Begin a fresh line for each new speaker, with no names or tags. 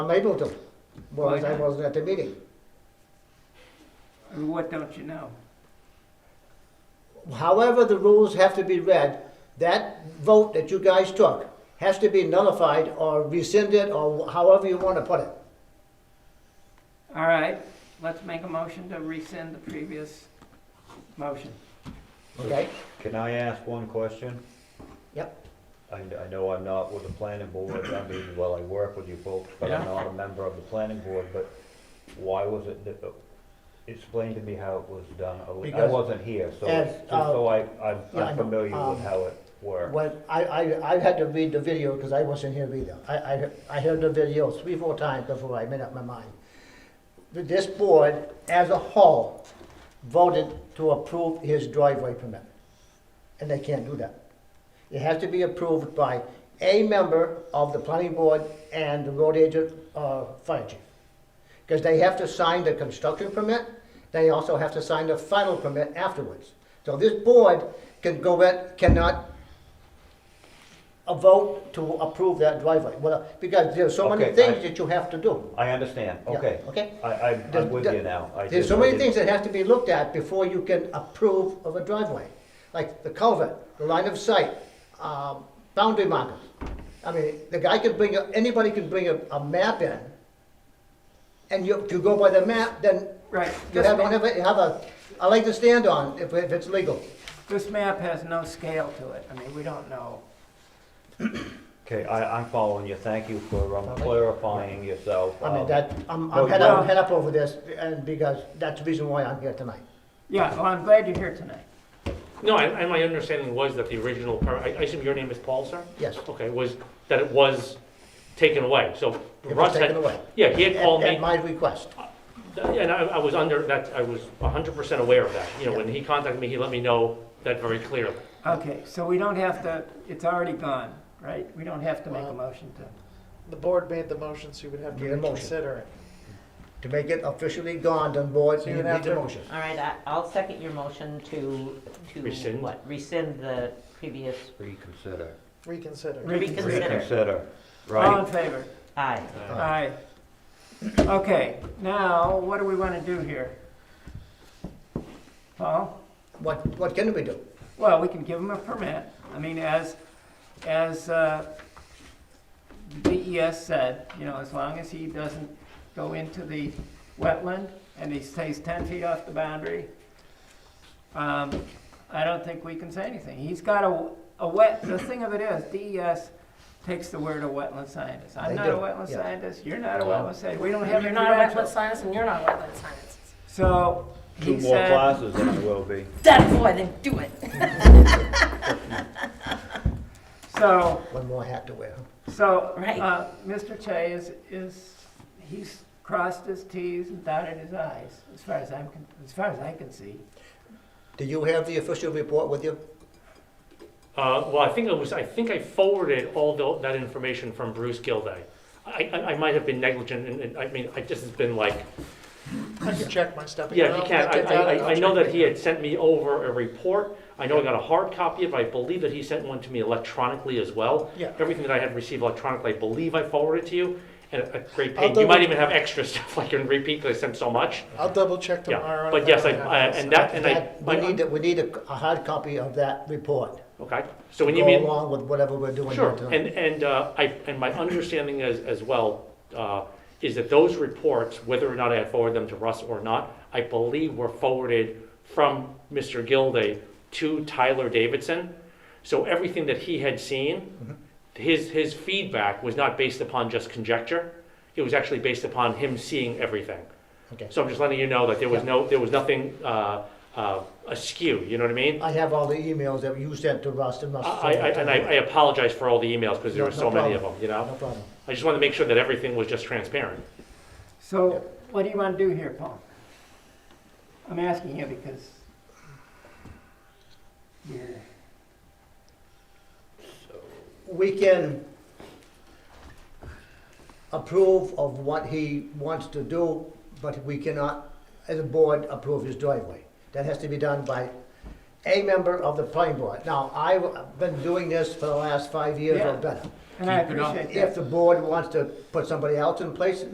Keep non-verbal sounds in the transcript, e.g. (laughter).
I'm able to, whereas I
Why not?
wasn't at the meeting.
And what don't you know?
However the rules have to be read, that vote that you guys took has to be nullified or rescinded or however you want to put it.
All right, let's make a motion to rescind the previous motion.
Okay?
Can I ask one question?
Yep.
I, I know I'm not with the planning board, I mean, well, I work with you folks, but I'm not a member of the planning board, but why was it, that- explain to me how it was done. I was- I
Because-
wasn't here, so,
As,
just
uh,
so I, I'm-
yeah, I
I'm
know,
familiar
um,
with how it worked.
When, I, I, I had to read the video because I wasn't here either. I, I, I heard the video three, four times before I made up my mind. This board, as a whole, voted to approve his driveway permit. And they can't do that. It has to be approved by a member of the planning board and the road agent, uh, fire chief. Because they have to sign the construction permit, they also have to sign the final permit afterwards. So this board can go in, cannot a vote to approve that driveway, well, because there's so many
Okay,
things
I-
that you have to do.
I understand,
Yeah,
okay.
okay.
I, I,
There's-
I'm with you now. I
There's
just-
so
I
many
didn't-
things that have to be looked at before you can approve of a driveway, like the culvert, the line of sight, um, boundary markers. I mean, the guy could bring, a- anybody can bring a, a map in, and you, if you go by the map, then
Right,
you
this
have, don't
ma-
have a, have a, a leg to stand on if, if it's legal.
this map has no scale to it, I mean, we don't know.
Okay, I, I'm following you, thank you for um,
Okay.
clarifying yourself.
I mean,
Um,
that, I'm,
no,
I'm head
you-
up, head up over this, and because that's the reason why I'm here tonight.
Yeah, well, I'm glad you're here tonight.
No, and and my understanding was that the original, per- I I assume your name is Paul, sir?
Yes.
Okay, was, that it was taken away, so
was
Russ had.
taken away.
Yeah, he had
At-
called me,
At my request.
and I I was under, that, I was hundred percent aware of that. You know, when he contacted me, he let me know that very clearly.
Okay, so we don't have to, it's already gone, right? We don't have to make a
Well-
motion to,
The board made the motion, so you would have to
Need a motion.
reconsider it.
To make it officially gone, then board,
So
you
you'd
need
have
a
to-
motion.
All right, I- I'll second your motion to, to
Rescind?
what? Rescind the previous,
Reconsider.
Reconsider.
reconsider.
Reconsider,
All
right?
in favor?
aye.
"Uh,
Aye. Okay, now, what do we want to do here? Paul?
What, what can we do?
Well, we can give them a permit. I mean, as, as uh, DES said, you know, as long as he doesn't go into the wetland and he stays 10 feet off the boundary, um, I don't think we can say anything. He's got a, a wet, the thing of it is, DES takes the word of wetland scientist. I'm
They
not a
do,
wetland
yeah.
scientist, you're not a
No.
wetland scientist, we don't have
You're
any
not a wetland
credentials.
scientist and you're not a wetland scientist.
So
Two
he
more
said,
classes and I will be.
That's why they do it.
so
One more hat to wear.
So,
Right.
uh, Mr. Che is, is, he's crossed his Ts and dotted his Is, as far as I'm, con- as far as I can see.
Do you have the official report with you?
Uh, Well, I think I was, I think I forwarded all tho- that information from Bruce Gilday. I, I- I might have been negligent, and- and I mean, I just, it's been like,
I can check my stuff.
Yeah, if you can, I, I, I- I know that he had sent me over a report, I know I got a hard copy of it, I believe that he sent one to me electronically as well.
Yeah.
Everything that I had received electronically, I believe I forwarded to you, and at at great
I'll
pain, you might
double-
even have extra (laughs) stuff I can repeat, because I sent so much.
I'll double check
Yeah,
tomorrow.
but
if
yes, I,
don't
I-
have it.
and that, and I,
That- We need,
my-
a- we need a, a hard copy of that report.
okay, so when you
Go
mean.
along with whatever we're doing here
Sure, and,
tonight.
and, uh, I, and my understanding as, as well, uh, is that those reports, whether or not I had forwarded them to Russ or not, I believe were forwarded from Mr. Gilday to Tyler Davidson. So everything that he had
Mm-hmm.
seen, his, his feedback was not based upon just conjecture. It was actually based upon him seeing everything.
Okay.
So I'm just letting you know that there was no, there was nothing, uh, uh, askew, you know what I mean?
I have all the emails that you sent to Russ and Russ.
I, I, and I I apologize for all the emails, because there
No-
were
no
so many of them,
problem.
you know?
No problem.
I just wanted to make sure that everything was just transparent.
So, what do you want to do here, Paul? I'm asking you because you're,
We can approve of what he wants to do, but we cannot, as a board, approve his driveway. That has to be done by a member of the planning board. Now, I've been doing this for the last five years
Yeah.
or better.
And I
Keep it up.
appreciate that.
If the board wants to put somebody else in place,